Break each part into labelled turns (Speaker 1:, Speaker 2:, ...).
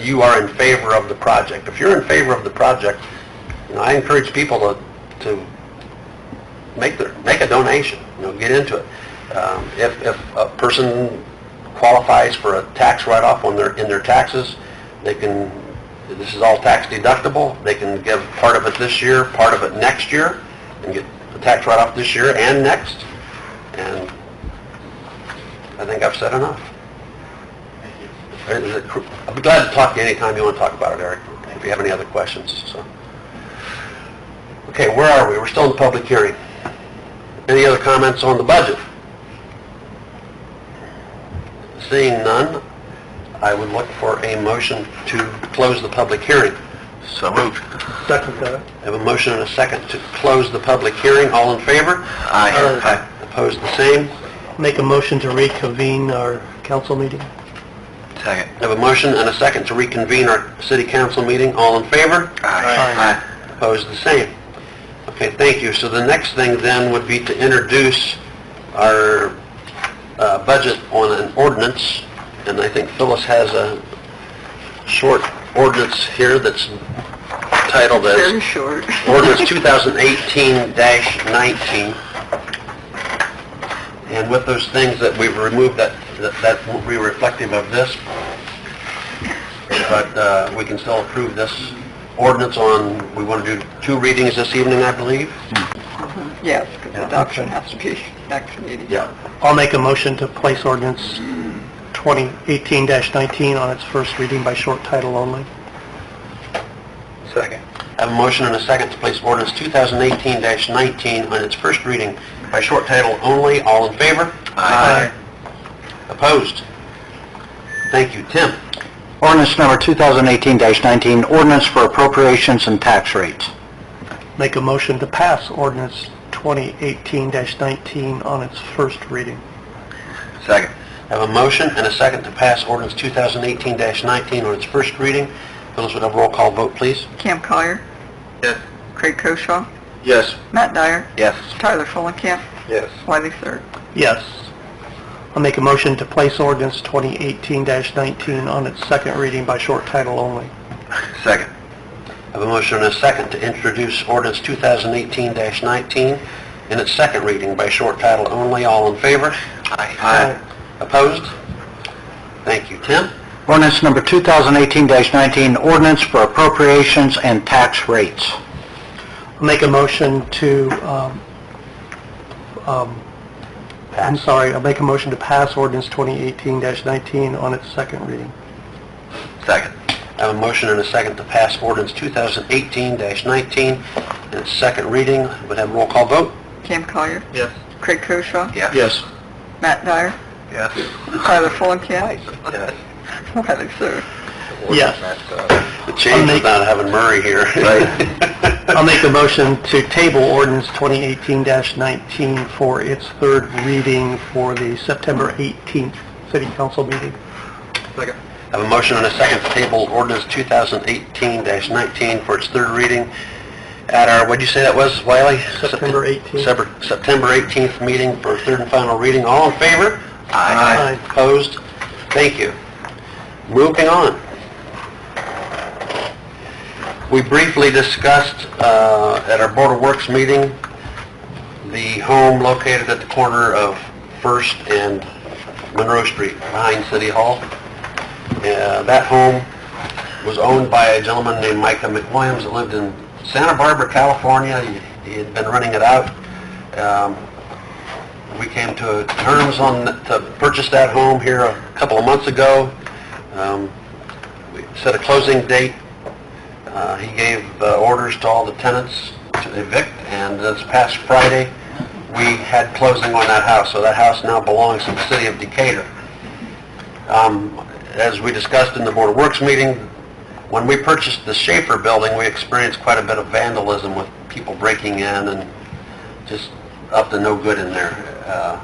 Speaker 1: you are in favor of the project. If you're in favor of the project, you know, I encourage people to, to make their, make a donation, you know, get into it. Um, If, if a person qualifies for a tax write-off on their, in their taxes, they can, this is all tax deductible, they can give part of it this year, part of it next year, and get the tax write-off this year and next, and I think I've said enough. Is it cr- I'd be glad to talk to you anytime you want to talk about it, Eric, if you have any other questions, so. Okay, where are we? We're still in the public hearing. Any other comments on the budget? Seeing none, I would look for a motion to close the public hearing. So moved.
Speaker 2: Second uh, that.
Speaker 1: I have a motion and a second to close the public hearing. All in favor?
Speaker 2: Aye.
Speaker 1: Aye. Opposed, the same?
Speaker 2: Make a motion to reconvene our council meeting.
Speaker 1: Second. I have a motion and a second to reconvene our city council meeting. All in favor?
Speaker 2: Aye.
Speaker 1: Opposed, the same. Okay, thank you. So the next thing then would be to introduce our uh, budget on an ordinance, and I think Phyllis has a short ordinance here that's titled
Speaker 3: Very
Speaker 1: as
Speaker 3: short.
Speaker 1: Ordinance 2018-19. And with those things that we've removed, that, that- that won't be reflective of this, but uh, we can still approve this ordinance on, we want to do two readings this evening, I believe?
Speaker 3: Yes, because
Speaker 1: Yeah.
Speaker 3: adoption has to be next meeting.
Speaker 1: Yeah.
Speaker 2: I'll make a motion to place ordinance 2018-19 on its first reading by short title only.
Speaker 1: Second. I have a motion and a second to place ordinance 2018-19 on its first reading by short title only. All in favor?
Speaker 2: Aye.
Speaker 1: Opposed? Thank you. Tim?
Speaker 4: Ordinance number 2018-19, ordinance for appropriations and tax rates.
Speaker 2: Make a motion to pass ordinance 2018-19 on its first reading.
Speaker 1: Second. I have a motion and a second to pass ordinance 2018-19 on its first reading. Phyllis, would have a roll call vote, please?
Speaker 3: Cam Collier,
Speaker 1: Yes.
Speaker 3: Craig Koshaw,
Speaker 1: Yes.
Speaker 3: Matt Dyer,
Speaker 1: Yes.
Speaker 3: Tyler Fulenkamp,
Speaker 1: Yes.
Speaker 3: Wiley Sir.
Speaker 2: Yes. I'll make a motion to place ordinance 2018-19 on its second reading by short title only.
Speaker 1: Second. I have a motion and a second to introduce ordinance 2018-19 in its second reading by short title only. All in favor?
Speaker 2: Aye.
Speaker 1: Opposed? Thank you. Tim?
Speaker 4: Ordinance number 2018-19, ordinance for appropriations and tax rates.
Speaker 2: I'll make a motion to, um, um, I'm sorry, I'll make a motion to pass ordinance 2018-19 on its second reading.
Speaker 1: Second. I have a motion and a second to pass ordinance 2018-19 in its second reading. Would have a roll call vote?
Speaker 3: Cam Collier,
Speaker 2: Yes.
Speaker 3: Craig Koshaw,
Speaker 4: Yes.
Speaker 3: Matt Dyer,
Speaker 1: Yes.
Speaker 3: Tyler Fulenkamp, Wiley Sir.
Speaker 2: Yes.
Speaker 1: The change is not having Murray here.
Speaker 2: I'll make a motion to table ordinance 2018-19 for its third reading for the September 18th city council meeting.
Speaker 1: I have a motion and a second to table ordinance 2018-19 for its third reading at our, what'd you say that was, Wiley?
Speaker 2: September 18th.
Speaker 1: September September 18th meeting for third and final reading. All in favor?
Speaker 2: Aye.
Speaker 1: Opposed? Thank you. Moving on. We briefly discussed uh, at our Board of Works meeting, the home located at the corner of First and Monroe Street behind City Hall. Uh, That home was owned by a gentleman named Micah McWilliams that lived in Santa Barbara, California. He- He had been renting it out. Um, We came to terms on, to purchase that home here a couple of months ago. Um, We Set a closing date uh, He gave uh, orders to all the tenants to evict, and this past Friday, we had closing on that house, so that house now belongs to the city of Decatur. Um, As we discussed in the Board of Works meeting, when we purchased the Schaefer building, we experienced quite a bit of vandalism with people breaking in and just up to no good in there. Uh,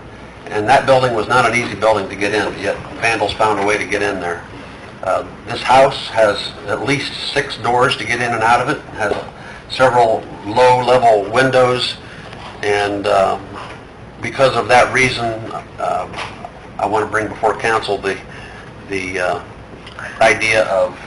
Speaker 1: And that building was not an easy building to get in, yet vandals found a way to get in there. Uh, This house has at least six doors to get in and out of it, has several low-level windows, and um, because of that reason, uh, I want to bring before council the, the uh, idea of